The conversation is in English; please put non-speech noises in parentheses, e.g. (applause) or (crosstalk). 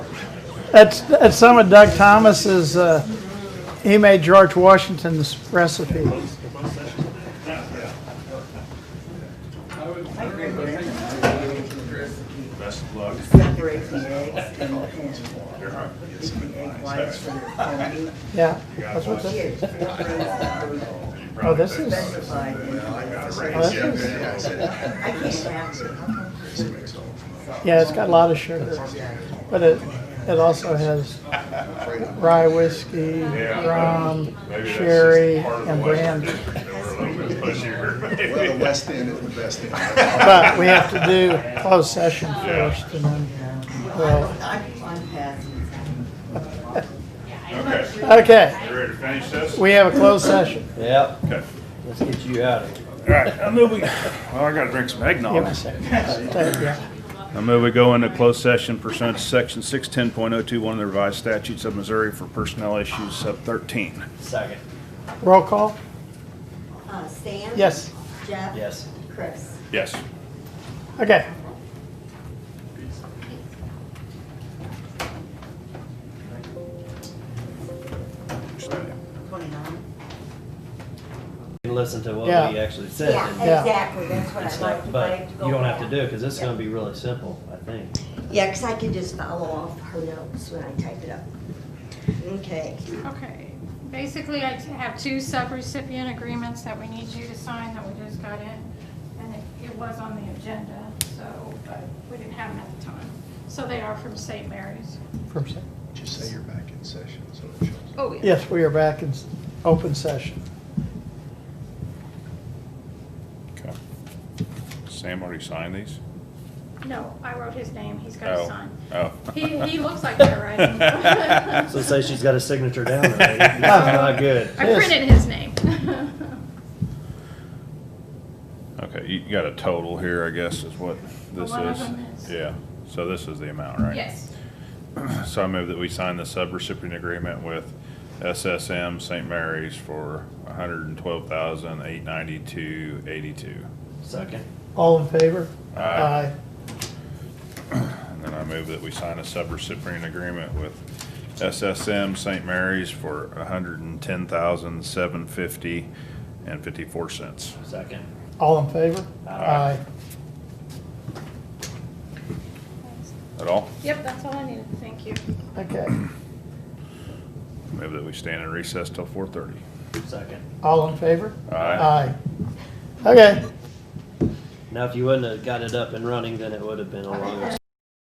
That's, that's some of Doug Thomas's, uh, he made George Washington's recipe. Best of luck. Separate the eggs and the ham. You're hungry. Yes. The egg whites from the hominy. Yeah, got that's what one. that, oh, Here's the frozen fruit You probably this think is- about it. specified in I got it the- right. Oh, that Yeah, is- yeah, I said it. I can't have it. yeah, it's got a lot of sugar, but it, it also has rye whiskey, Yeah. rum, Maybe that's just sherry, part of the and Western brandy. district, they were a little bit pushier. Well, (laughs) the West End is the best end. But we have to do closed session first, and then, well, I'm, I'm passing. Okay, okay, you ready to finish this? we have a closed session. Yep, Okay. let's get you out of here. All right, I move we, well, I gotta drink some Give me eggnog. a second. Take- yeah. I move we go into closed session pursuant to section six ten point oh two, one of the revised statutes of Missouri for personnel issues sub thirteen. Second, Roll call? Uh, Sam? Yes. Jeff? yes. Chris? Yes. Okay. Twenty-nine? And listen to what Yeah. we actually said. Yeah, and Yeah. exactly, that's what it's I'd not- like to. But like go you don't have to back. do it, because this is gonna be really simple, I think. Yeah, because I can just follow off her notes when I type it up. Okay. Okay, basically, I have two subrecipient agreements that we need you to sign that we just got in, and it- it was on the agenda, so, but we didn't have them at the time. So they are from St. Mary's. First. Just say you're back in session, so it shows. Oh, Yes, we are back in s- open session. Okay. Sam already signed these? No, I wrote his name, he's got to Oh. sign. Oh. He, he looks like they're (laughs) writing. So say she's got a signature down already. That's not good. I printed his name. Okay, you got a total here, I guess, is what this One of them is? is. Yeah, so this is the amount, right? Yes, (clears throat) So I move that we sign the subrecipient agreement with SSM St. Mary's for hundred and twelve thousand, eight ninety-two, eighty-two. Second, All in favor? Aye. And then I move that we sign a subrecipient agreement with SSM St. Mary's for a hundred and ten thousand, seven fifty and fifty-four cents. second. All in favor? Aye. At all? yep, that's all I needed, thank you. Aye. Okay. Move that we stand in recess till four thirty. Second. All in favor? Aye. Aye. Okay. Now, if you wouldn't have got it up and running, then it would have been a longer